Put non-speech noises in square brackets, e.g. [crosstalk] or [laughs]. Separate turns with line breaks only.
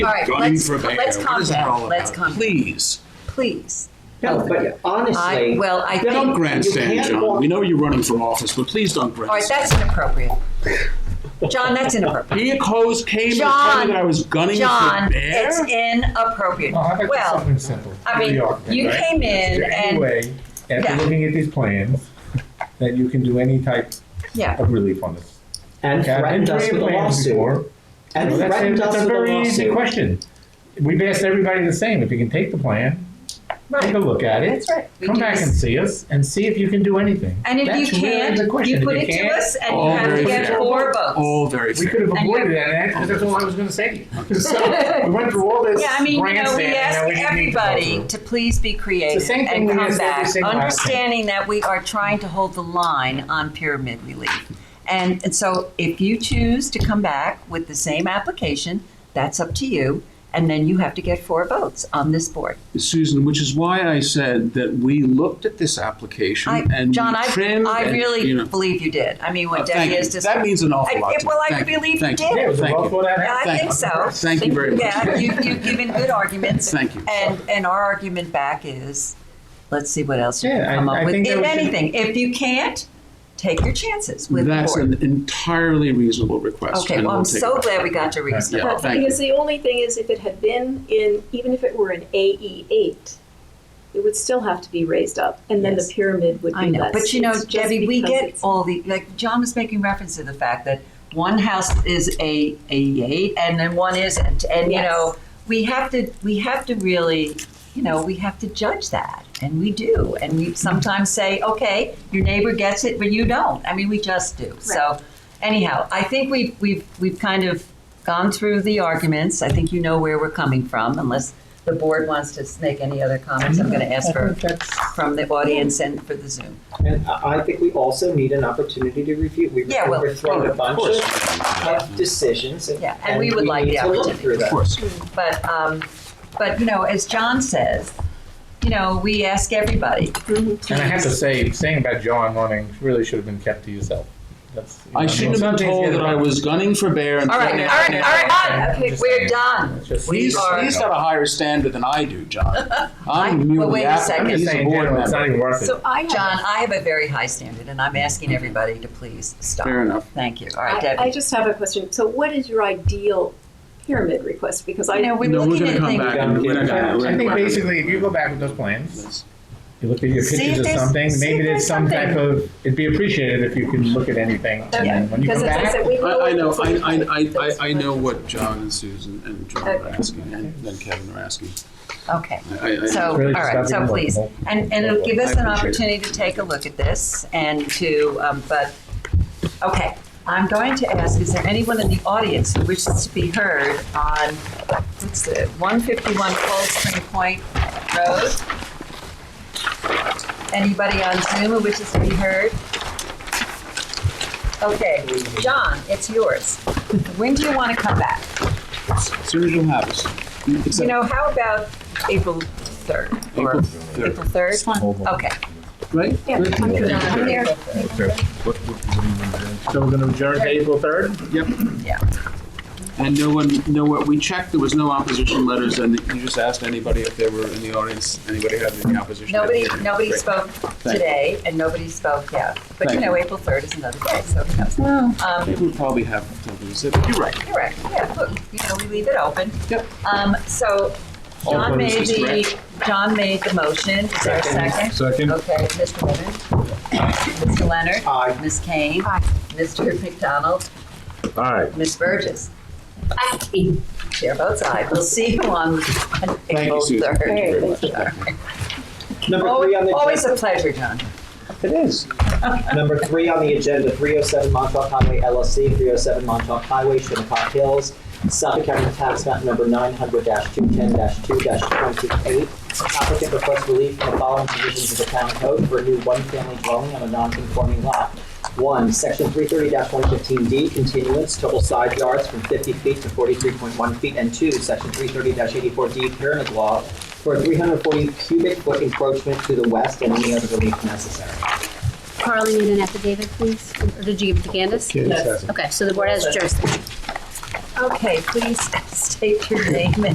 All right,
gunning
let's,
for Bayer.
let's
What
calm
is that all
down. Let's
about?
calm down,
Please.
please.
No, but honestly.
I- well, I think-
Don't grandstand,
You can't
John.
walk-
We know you're running for office, but please don't
All right,
grandstand.
that's inappropriate. John, that's
[laughs]
inappropriate.
He accused, came and told me
John,
that I was gunning for
John, it's
Bear?
inappropriate.
Well, how about just
Well,
something simple?
I mean,
Here we are,
you
right?
came in and,
Anyway, after
Yeah.
looking at these plans, that you can do any type
yeah,
of relief on this.
And
Okay, I've been
threatened us
through
with a
your plans
lawsuit.
before.
And
Well, that's a-
threatened us
that's a
with a
very easy
lawsuit.
question. We've asked everybody the same, if you can take the plan, take a
right.
look at it.
That's right. We
Come
do
back
this.
and see us, and see if you can do anything.
And if you
That's really
can't,
the question.
you
If
put it to
can't,
us and you
All
have to
very
get
fair.
four votes.
All very
We
fair.
could have
And you-
avoided that, and that- that's all I was gonna say to you. [laughs] So, we went through all this
Yeah, I mean, you know, we
grandstanding that
ask
we didn't need to go
everybody
through.
to please be creative
same thing
and
we
come
ask every
back,
single applicant.
understanding that we are trying to hold the line on pyramid relief. And, and so if you choose to come back with the same application, that's up to you. And then you have to get four votes on this board.
Susan, which is why I said that we looked at this application
I,
and
John,
we
I,
trimmed.
I
and,
really
you know-
believe you did. I mean,
Uh,
what
thank
Debbie
you.
is just.
That means an
I-
awful lot to me.
Well, I
Thank you.
believe you
Thank you.
did.
Yeah, it was a
Thank
well
you.
thought out
Yeah, I
Thank
think
you.
so.
Thank you very much.
Yeah, you, you've given good arguments.
Thank you.
And, and our argument back is, let's see what else you
Yeah,
can
I-
come up
I
with,
think that
if
we should-
anything. If you can't, take your chances with the
That's
board.
an entirely reasonable request.
Okay,
and
well, I'm
we'll take
so
it.
glad we got your reason.
Yeah,
But
thank you.
because the only thing is, if it had been in, even if it were an AE eight, it would still have to be raised up, and then
Yes.
the pyramid would be
I know,
less.
but you know,
It's just
Debbie, we
because
get
it's-
all the, like, John was making reference to the fact that one house is a, a eight and then one isn't. And, you
Yes.
know, we have to, we have to really, you know, we have to judge that. And we do. And we sometimes say, okay, your neighbor gets it, but you don't. I mean, we just do. So anyhow, I think we've, we've, we've kind of gone through the arguments. I think you know where we're coming from, unless the board wants to make any other comments. I'm going to ask for, from the audience and for the Zoom.
And I I think we also need an opportunity to review. We
Yeah, well,
were thrown a bunch
course.
of tough decisions.
Yeah, and we would like
need
the
to look
opportunity.
through
Of
that.
course.
But, um, but you know, as John says, you know, we ask everybody.
And I have to say, saying about John running really should have been kept to yourself. That's, you
I
know,
shouldn't have
sometimes
been
you
told
get
that I
about-
was gunning for Bear and.
All right, all
threatening-
right, all right, okay, we're done.
It's just-
We
He's,
are-
he's got a higher standard than I do, John.
[laughs] I-
I'm
well,
merely
wait a
acting,
second.
I'm just
he's a
saying,
board
generally, it's
member.
not even worth it.
So I have.
John, I have a very high standard, and I'm asking everybody to please stop.
Fair enough.
Thank you. All right,
I, I
Debbie.
just have a question. So, what is your ideal pyramid request? Because I
You know,
know
we're
No, we're
looking
gonna
at
come
things.
back and we're not gonna. we're
I think
not gonna-
basically, if you go back with those plans, you look at your
See if
pictures or
there's- see
something,
if
maybe
there's
there's some
something.
type of, it'd be appreciated if you can look at anything. and then when you
because
come
as I
back,
said, we
I, I know,
what's
I,
in
I,
it.
I- I, I know what John and Susan and John are asking, and then Kevin are asking.
Okay.
I- I- I-
So, all
Really just
right,
gotta
so
be
please,
multiple.
and, and it'll give us an
I appreciate
opportunity to take a look at this and to, um, but, okay. I'm going to ask, is there anyone in the audience who wishes to be heard on, what's the, 151 Cold Spring Point Road? Anybody on Zoom who wishes to be heard? Okay, John, it's yours. When do you want to come back?
As soon as you have us.
You
Except
know, how about April 3rd? or-
April third,
April 3rd? Okay.
Right?
April 3rd.
So we're gonna adjourn to April third?
Yep.
Yeah.
And no one, no one, we checked, there was no opposition letters, and you just asked anybody if they were in the audience, anybody had any opposition.
Nobody,
Great.
nobody spoke
you.
today, and nobody spoke yet. But you
Thank
know, April 3rd is another day, so who knows?
I
Um,
think we probably have, you're right.
Correct, yeah, look, you know, we leave it open.
Yep.
Um, So
All
John made
purposes,
the, John made the motion. Is there a second?
Second.
Okay, Mr. Leonard? Mr. Leonard?
Aye.
Ms. Kane? Mr. McDonald?
Aye.
Ms. Burgess? Chair votes aye. We'll see you on on
Thank
April
you, Susan.
3rd.
Thank you very much.
Number three on
Always always a
the
pleasure, John.
It is. Number three on the agenda, 307 Montauk Highway LLC, 307 Montauk Highway, Shinnecock Hills, Suffolk County Tax Map Number 900-210-2-28. Applicant requests relief from the following provisions of the town code for a new one-family dwelling on a non-conforming lot. One, section 330-115D, continuance, total side yards from 50 feet to 43.1 feet. And two, section 330-84D, pyramid law, for a 340 cubic foot encroachment to the west and any other relief necessary.
Carl, you need an affidavit, please? Or did you give it to Candace? Okay, so the board has jurisdiction. Um,
Okay, please [laughs] state your name and